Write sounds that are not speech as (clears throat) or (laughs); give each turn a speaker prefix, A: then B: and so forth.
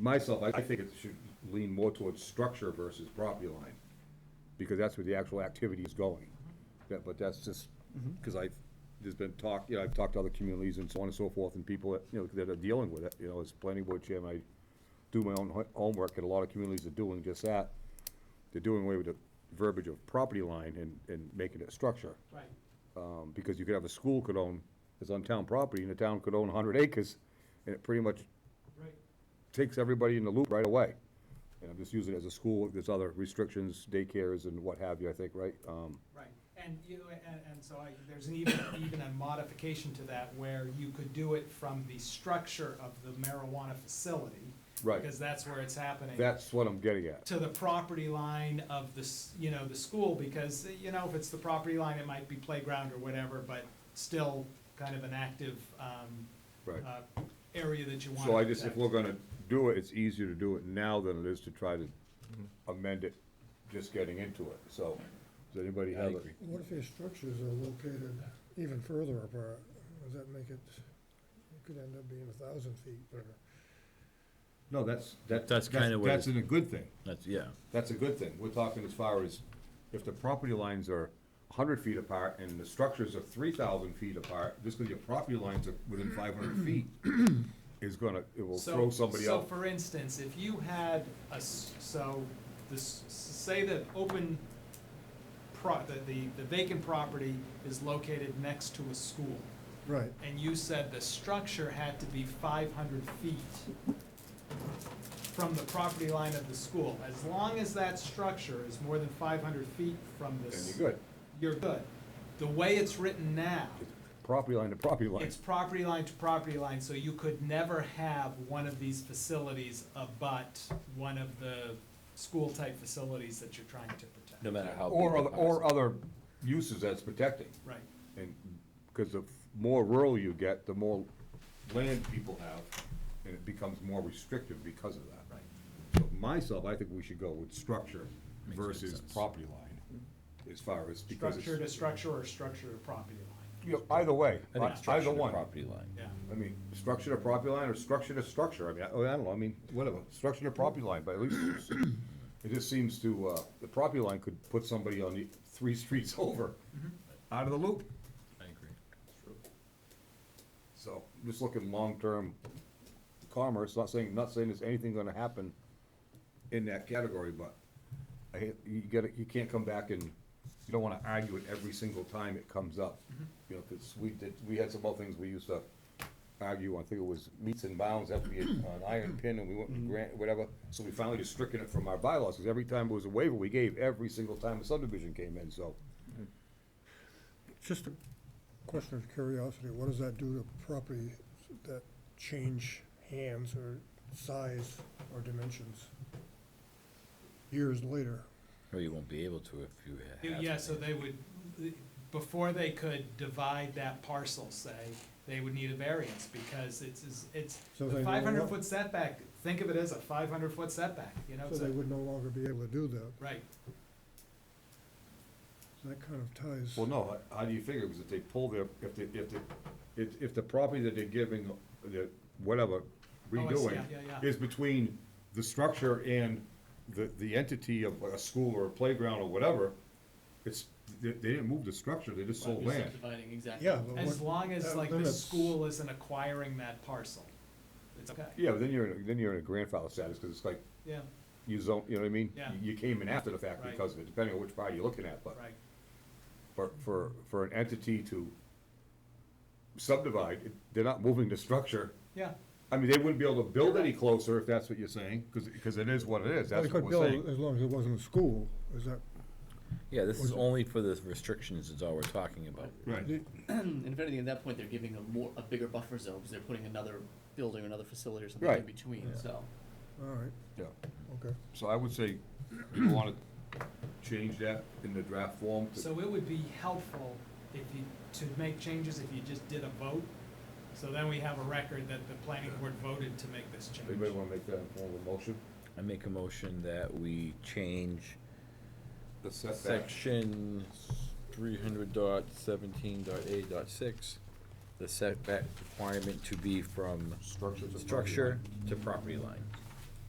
A: myself, I I think it should lean more towards structure versus property line, because that's where the actual activity is going. That- But that's just, because I've, there's been talk, you know, I've talked to other communities and so on and so forth, and people that, you know, that are dealing with it, you know, as planning board chairman, I do my own ho- homework, and a lot of communities are doing just that. They're doing away with the verbiage of property line and, and making it structure.
B: Right,
A: Um, because you could have a school could own, it's on town property, and the town could own hundred acres, and it pretty much
B: right.
A: takes everybody in the loop right away. And I'm just using it as a school, there's other restrictions, daycares and what have you, I think, right? Um,
B: Right, and you, and, and so I, there's an even, even a modification to that where you could do it from the structure of the marijuana facility.
A: Right.
B: Because that's where it's happening.
A: That's what I'm getting at.
B: To the property line of the, s- you know, the school, because, you know, if it's the property line, it might be playground or whatever, but still kind of an active, um,
A: Right.
B: uh, area that you want to
A: So I just, if
B: protect.
A: we're gonna do it, it's easier to do it now than it is to try to amend it, just getting into it, so. Does anybody have a?
C: What if your structures are located even further apart? Does that make it, it could end up being a thousand feet or?
A: No, that's, that-
D: That's kinda what
A: That's
D: it-
A: a good thing.
D: That's, yeah.
A: That's a good thing. We're talking as far as if the property lines are hundred feet apart and the structures are three thousand feet apart, just because your property lines are within five hundred feet is gonna, it will
B: So-
A: throw somebody
B: So,
A: out.
B: for instance, if you had a, s- so, this, say the open pro, the, the- the vacant property is located next to a school,
C: Right,
B: and you said the structure had to be five hundred feet from the property line of the school, as long as that structure is more than five hundred feet from
A: Then
B: this.
A: you're good.
B: You're good. The way it's written now.
A: It's Property line to property line.
B: It's property line to property line, so you could never have one of these facilities abut one of the school-type facilities that you're trying to
D: No
B: protect.
D: matter how.
A: Or,
D: big the
A: other- or
D: house
A: other uses that's protecting.
B: Right,
A: And, because the more rural you get, the more land people have, and it becomes more restrictive because of that.
B: right.
A: So myself, I think we should go with structure
D: Makes good
A: versus
D: sense.
A: property line, as far as, because
B: Structure to
A: it's,
B: structure or structure to property line,
A: you know, either way,
D: is. I think structure
A: either
D: to
A: one.
D: Property line.
B: yeah.
A: I mean, structure to property line or structure to structure, I mean, I oh, I don't know, I mean, whatever, structure to property line, but at least
D: (coughs)
A: it's- it just seems to, uh, the property line could put somebody on the three (laughs) streets over,
D: Mm-hmm.
A: out of the loop.
D: I agree.
A: So, just looking long-term commerce, not saying, not saying there's anything gonna happen in that category, but I, hate- you gotta, you can't come back and, you don't wanna argue it every single time it comes up. You know, 'cause we did, we had some other things we used to argue, I think it was meets and bounds, that we had an iron pin and we went and grant, whatever. So we finally just stricken it from our bylaws, cause every time it was a waiver, we gave every single time a subdivision came in, so.
C: just a question of curiosity, what does that do to property that change hands or size or dimensions years later?
D: Or you won't be able to if you have.
B: Yeah,
D: to.
B: Yeah, so they would, before they could divide that parcel, say, they would need a variance, because it's, it's- it's,
C: So
B: the
C: they know
B: five hundred
C: what-
B: foot setback, think of it as a five hundred foot setback, you know,
C: So
B: it's
C: they
B: a,
C: would no longer be able to do that.
B: right,
C: That kind of ties.
A: Well, no, how- how do you figure, because if they pull their, if they, if they, if, if the property that they're giving, the, whatever,
B: Oh, see,
A: redoing,
B: yeah, yeah, yeah.
A: is between the structure and the, the entity of a school or a playground or whatever, it's, they, they didn't move the structure, they just sold land.
E: Subdividing, exactly.
C: Yeah. but
B: as
C: what- uh,
B: long as
C: that
B: like the
C: limits-
B: school isn't acquiring that parcel, it's okay,
A: Yeah, but then you're, in a- then you're in a grandfather status, because it's like,
B: yeah.
A: you zone, you know what I mean?
B: Yeah.
A: You came in after the fact
B: Right.
A: because of it, depending on which party you're looking at, but.
B: Right,
A: for, for, for an entity to subdivide, it- they're not moving the structure.
B: yeah,
A: I mean, they wouldn't be able to build any closer if that's what you're saying, because, it is what it is,
C: Well,
A: that's
C: They
A: what
C: could
A: we're
C: build
A: saying.
C: as long as it wasn't a school, is that?
D: Yeah, this is only for the restrictions is all we're talking
E: (clears throat)
D: about.
A: Right.
E: And if anything, at that point, they're giving a more, a bigger buffer zone, because they're putting another building, or another facility or something in
A: Right.
E: between, so.
C: All right,
A: Yeah,
C: okay.
A: so I would say, you wanna change that in the draft form to,
B: so it would be helpful if you, to make changes if you just did a vote. So then we have a record that the planning board voted to make this change.
A: anybody wanna make that in form of a motion?
D: I make a motion that we change
A: The setback,
D: section three hundred dot seventeen dot eight dot six, the setback requirement to be from
A: structure to. property
D: structure
A: line.
D: to property line.